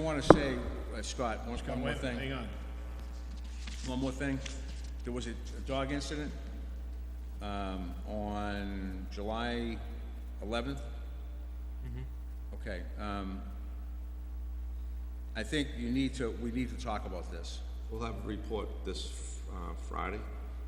I want to say, uh, Scott, one one more Wait a minute, thing, Hang on. one more thing. There was a a dog incident um, on July 11th. Mm-hmm. Okay. um, I think you need to, we need to talk about this. We'll have a report this uh, Friday.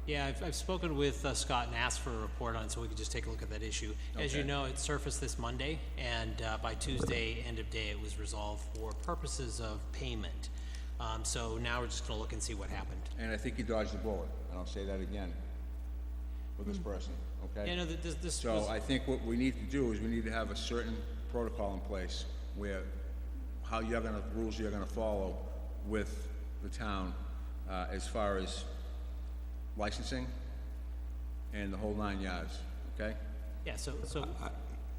Yeah, I've, I've spoken with uh, Scott and asked for a report on it, so we could just take a look at that issue. As you Okay. know, it surfaced this Monday, and uh, by Tuesday, end of day, it was resolved for purposes of payment. Um, so now we're just gonna look and see what happened. And I think you dodged the bullet, and I'll say that again with this person, okay? Hmm. Yeah, no, th- this, this So was, I think what we need to do is we need to have a certain protocol in place where how you're gonna, rules you're gonna follow with the town, uh, as far as licensing and the whole nine yards, okay? yeah, so, so,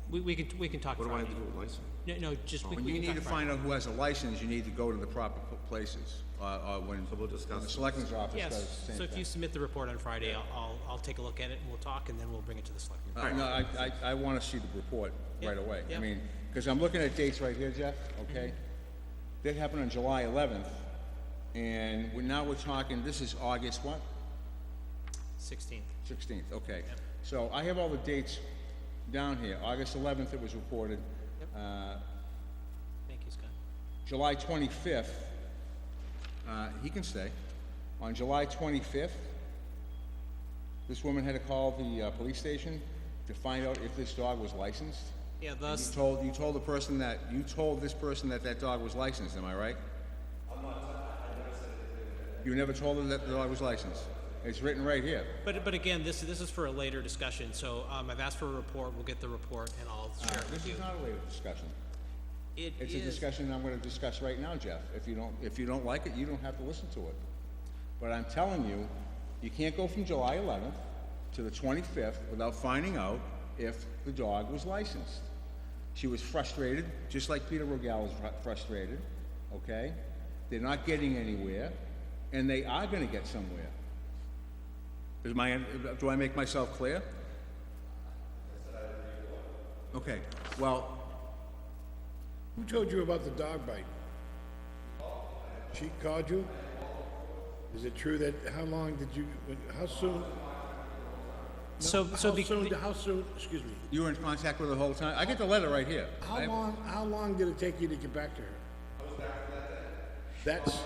we, we can, we can talk What do I Friday. have to do with license? No, no, just, we When we Oh, you can need to talk Friday. find out who has a license, you need to go to the proper pl- places, uh, uh, when, we'll when discuss the it. selectmen's office does Yes, the so same if you thing. submit the report on Friday, I'll, I'll, I'll take a look at it, and we'll talk, and then we'll bring it to the select. Uh, no, I, I, I wanna see the report right Yeah, away. I yeah. mean, cause I'm looking at dates right here, Jeff, okay? Mm-hmm. That happened on July eleventh, and we're, now we're talking, this is August what? Sixteenth. Sixteenth, okay. So I have all the dates down here. August eleventh, it was reported. Thank you, Scott. July 25th, uh, he can stay. On July 25th, this woman had to call the uh, police station to find out if this dog was licensed. Yeah, And thus, You told, you told the person that, you told this person that that dog was licensed, am I right? I'm not, I never said You never told her that the dog was licensed? It's written right here. But, but again, this, this is for a later discussion, so, um, I've asked for a report, we'll get the report and I'll share it This with you. is not a later discussion. It It's a is- discussion I'm gonna discuss right now, Jeff. If you don't, if you don't like it, you don't have to listen to it. But I'm telling you, you can't go from July eleventh to the twenty-fifth without finding out if the dog was licensed. She was frustrated, just like Peter Rogel was fru- frustrated, okay? They're not getting anywhere, and they are gonna get somewhere. Is my, do I make myself clear? Okay, well, Who told you about the dog bite? She called you? Is it true that, how long did you, how soon? So, so, How be- soon, how soon, excuse me, You were in contact with her the whole time? I get the letter right here. how I- long, how long did it take you to get back to her? That's,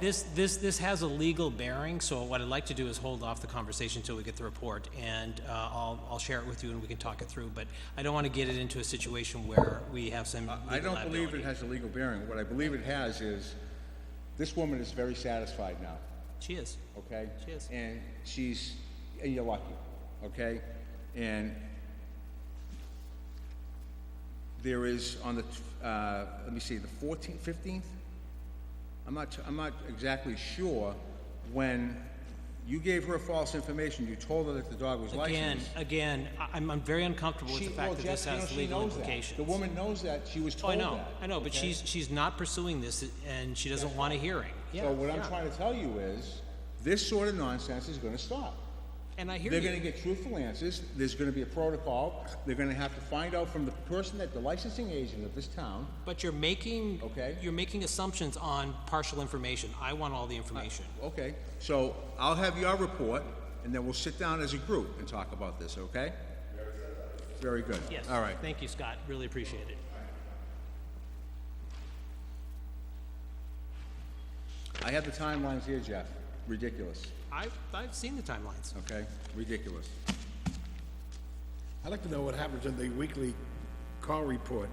this, this, this has a legal bearing, so what I'd like to do is hold off the conversation till we get the report and, uh, I'll, I'll share it with you and we can talk it through, but I don't wanna get it into a situation where we have some I legal don't believe it liability. has a legal bearing. What I believe it has is, this woman is very satisfied now, She is, okay? She is. And she's, and you're lucky, okay? And there is on the, t- uh, let me see, the fourteenth, fifteenth? I'm not, I'm not exactly sure when you gave her false information. You told her that the dog was licensed. again, again, I- I'm, I'm very uncomfortable with She- the well, fact that this Jeff, you know, has she legal knows that. implications. The woman knows that, she was Oh, I told that. know, I know, but okay? she's, she's not pursuing this and she doesn't want a hearing, yeah, So what I'm yeah. trying to tell you is, this sort of nonsense is gonna stop. And I hear They're you. gonna get truthful answers, there's gonna be a protocol, they're gonna have to find out from the person that, the licensing agent of this town, But you're making. Okay. You're making assumptions on partial information. I want all the information. okay? So I'll have your report, and then we'll sit down as a group and talk about this, okay? Very good. Yes. All right. Thank you, Scott. Really appreciate it. I have the timelines here, Jeff. Ridiculous, I've, I've seen the timelines. okay? Ridiculous. I'd like to know what happens in the weekly call report.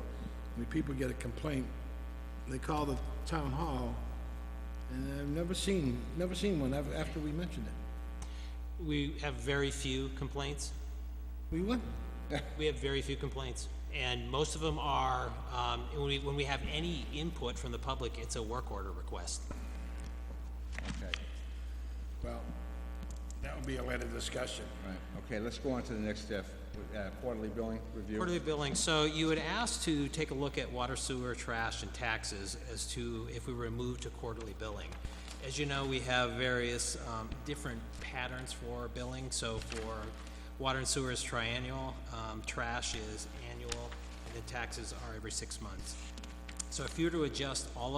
When people get a complaint, they call the town hall, and I've never seen, never seen one af- after we mentioned it. We have very few complaints. We went, We have very few complaints. And most of them are, um, when we, when we have any input from the public, it's a work order request. Okay, well, that would be a later discussion. all right. Okay, let's go on to the next step, uh, quarterly billing review. Quarterly billing, so you had asked to take a look at water, sewer, trash, and taxes as to if we were moved to quarterly billing. As you know, we have various um, different patterns for billing, so for water and sewer is triennial, um, trash is annual, and then taxes are every six months. So if you were to adjust all